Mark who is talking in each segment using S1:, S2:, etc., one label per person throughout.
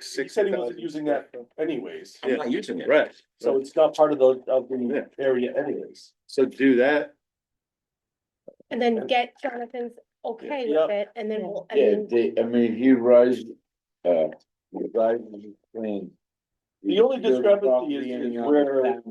S1: He said he wasn't using that anyways,
S2: I'm not using it.
S3: Right,
S1: so it's not part of the, of
S3: Yeah.
S1: the area anyways.
S3: so do that,
S4: And then get Jonathan's okay
S1: Yeah.
S4: with it, and then we'll, I
S5: Yeah,
S4: mean,
S5: they, I mean, he raised, uh, he raised his plan.
S1: The only discrepancy is- is where-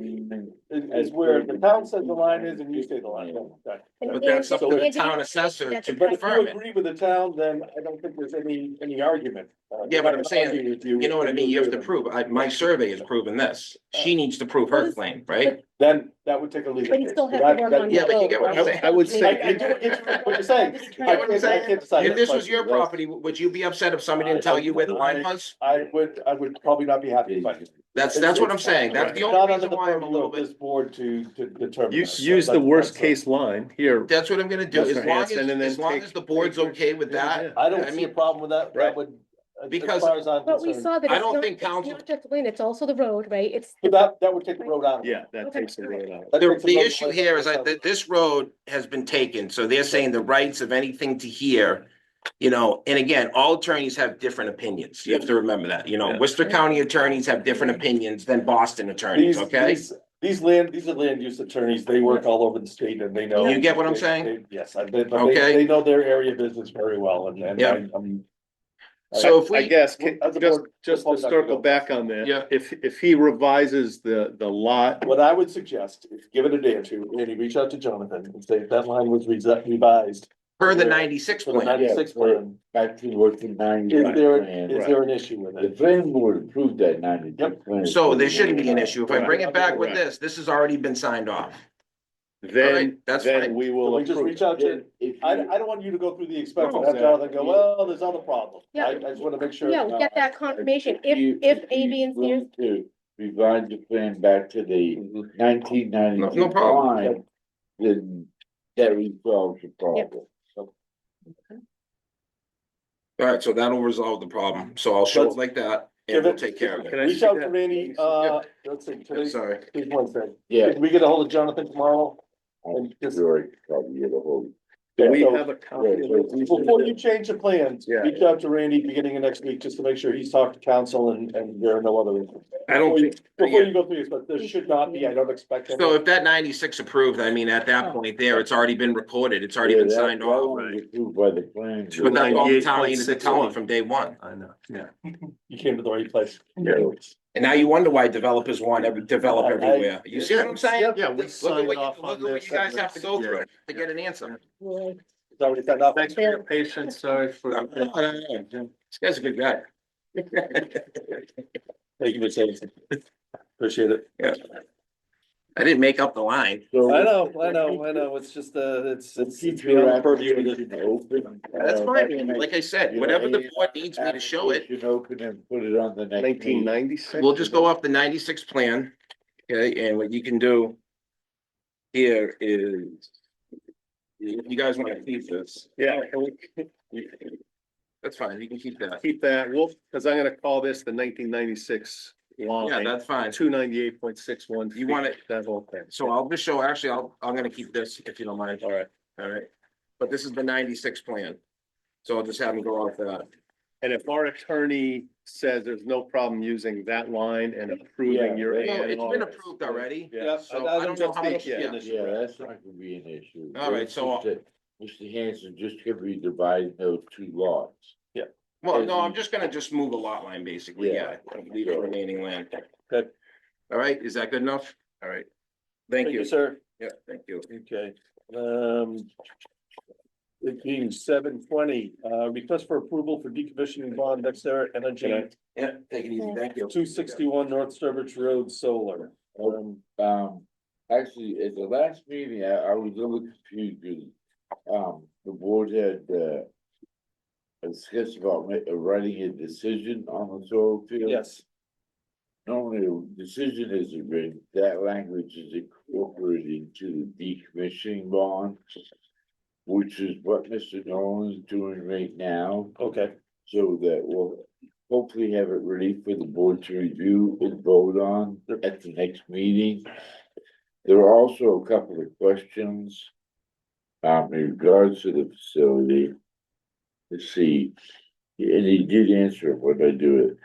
S1: Is, is where the town says the line is and you say the line is. Okay.
S4: and
S2: But that's up to
S4: Andy-
S2: the
S4: Andy-
S2: town assessor
S4: that's
S2: to
S4: a private-
S1: But if you
S2: confirm it.
S1: agree with the town, then I don't think there's any, any argument. Uh,
S2: Yeah, but I'm saying,
S1: arguing with
S2: You know what I mean? You have to
S1: agree with
S2: prove, I, my survey has proven this. She needs to prove her claim, right?
S1: it. Then that would take a legal.
S4: But you
S1: case.
S4: still have
S1: That-
S4: to work
S1: that-
S4: on
S2: Yeah, but you get what I'm
S4: Okay.
S2: saying.
S3: I would
S1: I,
S3: say,
S1: I do get you- what you're saying. I
S2: get what I'm
S1: can't, I
S2: saying.
S1: can't decide
S2: If
S1: that
S2: this was your
S1: question. That's-
S2: property, would you be upset if somebody didn't tell you where the line was?
S1: I would, I would probably not be happy, but.
S2: That's, that's what I'm saying. That's the
S1: It's
S2: only
S1: not under
S2: reason
S1: the
S2: why I'm a
S1: purview
S2: little
S1: of
S2: bit,
S1: This board to, to determine.
S3: use,
S1: that.
S3: use the
S1: That's-
S3: worst
S1: that's-
S3: case line here,
S2: that's what I'm gonna do. As
S3: Mr.
S2: long as,
S3: Hanson, and then
S2: as long
S3: take-
S2: as the board's okay with that.
S1: I don't see
S2: I
S1: a
S2: mean,
S1: problem with that, that
S3: right.
S1: would. as- as
S2: Because-
S1: far as I'm
S4: But we
S1: concerned.
S4: saw that
S2: I
S4: it's
S2: don't
S4: not,
S2: think
S4: it's
S2: council-
S4: not just Lynn, it's also the road, right? It's,
S1: But That, that would take the road out. of it.
S3: yeah, that
S4: Okay.
S3: takes it right out.
S1: That
S2: The,
S1: takes it
S2: the
S1: out of
S2: issue
S1: way.
S2: here is that th- this road has been taken, so they're saying the rights of anything to hear. You know, and again, all attorneys have different opinions. You have to remember that, you know,
S3: Yeah.
S2: Worcester County attorneys have different opinions than Boston attorneys,
S1: These,
S2: okay?
S1: these, these land, these are land use attorneys, they work all over the state and they know.
S2: You get what I'm
S1: they-
S2: saying?
S1: they- Yes, I, they, but they,
S2: Okay.
S1: they know their area of business very well and, and
S2: Yeah.
S1: I, I'm.
S2: So if
S3: I
S2: we,
S3: guess, ca-
S1: As a
S3: just,
S1: board-
S3: just to
S1: board, I can
S3: circle
S1: go.
S3: back on that.
S2: Yeah.
S3: If, if he revises the, the lot,
S1: What I would suggest is give it a day or two, Andy, reach out to Jonathan and say that line was resi- revised
S2: per the ninety-six
S1: for the
S2: plan,
S1: ninety-six plan.
S5: Back to working ninety.
S1: Is there,
S5: plan.
S1: is there an issue with
S5: The
S1: it?
S5: plan board approved that ninety. plan.
S2: so there shouldn't be an issue. If I bring it back with
S3: Right.
S2: this, this has already been signed off.
S3: then,
S2: Alright, that's
S3: then
S2: fine.
S3: we
S1: Can
S3: will
S1: we just
S3: approve.
S1: reach out to,
S5: If you-
S1: I, I don't want you to go through the expense
S3: No,
S1: and have Jonathan go,
S5: exactly.
S1: well, there's other problems. I,
S4: Yeah.
S1: I just wanna make sure.
S4: yeah, we get that confirmation, if,
S5: you-
S4: if A,
S5: you
S4: B, and C. are-
S5: want To revise the plan back to the
S3: Mhm.
S5: nineteen ninety.
S2: Mm-hmm. No problem.
S5: Then that resolves the problem.
S2: All right, so that'll resolve the problem. So I'll show it
S1: Let's-
S2: like that
S1: Give
S2: and we'll
S1: it-
S2: take care of
S3: Can
S2: it.
S3: I
S1: Reach
S3: see
S1: out
S3: that?
S1: to Randy, uh, let's see,
S2: I'm
S1: today's,
S2: sorry.
S1: today's Wednesday.
S5: Yeah.
S1: Can we get a hold of Jonathan tomorrow? Oh,
S5: I'm sure I probably get a hold.
S3: Do we
S1: So-
S3: have a copy of
S1: Before you
S3: it?
S1: change the plans,
S3: Yeah.
S1: reach out to Randy beginning of next week, just to make sure he's talked to council and, and there are no other.
S2: I don't think,
S1: Before you go through this, but there should not be, I don't expect. any-
S2: So if that ninety-six approved, I mean, at that point there, it's already been recorded, it's already been
S5: Yeah, that-
S2: signed
S5: that
S2: off.
S5: one was Approved by the plan.
S2: But that's all the town needed to
S3: 98.61.
S2: tell them from day one.
S3: I know, yeah.
S1: You came to the right place.
S2: And now you wonder why developers want every, develop
S1: I- I-
S2: everywhere. You see what I'm saying?
S3: Yeah, we
S2: Look at
S3: signed
S2: what
S3: off
S2: you,
S3: on
S2: look at what
S3: this.
S2: you guys have to go through
S3: Yeah.
S2: to get an answer.
S1: It's already signed off.
S3: Thanks for your patience, sorry for.
S2: No, no, no, no, no. This guy's a good guy.
S1: Thank you for saying. it. Appreciate it.
S2: I didn't make up the line.
S1: I know, I know, I know, it's just, uh, it's, it's. it's beyond the purview of the-
S2: That's fine. Like I said, whatever the board needs me to show it,
S5: Should open and put it on the next.
S3: Nineteen
S5: meeting.
S3: ninety-six?
S2: We'll just go off the ninety-six plan, okay, and what you can do here is, you you guys wanna keep this,
S3: Yeah, and we
S2: that's fine, you can keep that.
S3: keep that, we'll, because I'm gonna call this the nineteen ninety-six
S2: Yeah,
S3: line,
S2: that's fine.
S3: two ninety-eight point six one.
S2: You want it-
S3: That whole thing.
S2: So I'll just show, actually, I'll, I'm gonna keep this if you don't mind. All right. All right, but this is the ninety-six plan, so I'll just have them go off that.
S3: And if our attorney says there's no problem using that line and
S1: Yeah.
S3: approving your.
S2: No,
S3: A and
S2: it's
S3: R.
S2: been approved already.
S1: Yeah,
S2: So
S1: that
S2: I don't
S1: was
S2: know how
S1: just
S2: much-
S1: the
S2: yeah.
S1: initial.
S5: Yeah, that's not gonna be an issue.
S2: All right,
S5: It's
S2: so-
S5: just that Mr. Hanson just could be dividing those two lots.
S2: Well, no, I'm just gonna just move a lot line, basically, yeah,
S5: Yeah.
S2: leave the remaining land.
S1: Good.
S2: All right, is that good enough? All right, thank you,
S1: Sir.
S2: yeah, thank you.
S1: Okay, um. It being seven twenty, uh, request for approval for decommissioning bond Dexter Energy,
S2: Yeah, take it easy, thank you.
S1: two sixty-one North Sturbridge Road Solar. Um,
S5: Um, actually, at the last meeting, I, I was a little confused, because, um, the board had, uh. Discussed about ma- uh, writing a decision on the soil field.
S1: yes,
S5: Normally, a decision isn't written, that language is incorporated into the decommissioning bond. Which is what Mr. Nolan is doing right now,
S1: okay,
S5: so that we'll hopefully have it ready for the board to review and vote on at the next meeting. There are also a couple of questions. Um, in regards to the facility. Let's see, and he did answer it when I do it.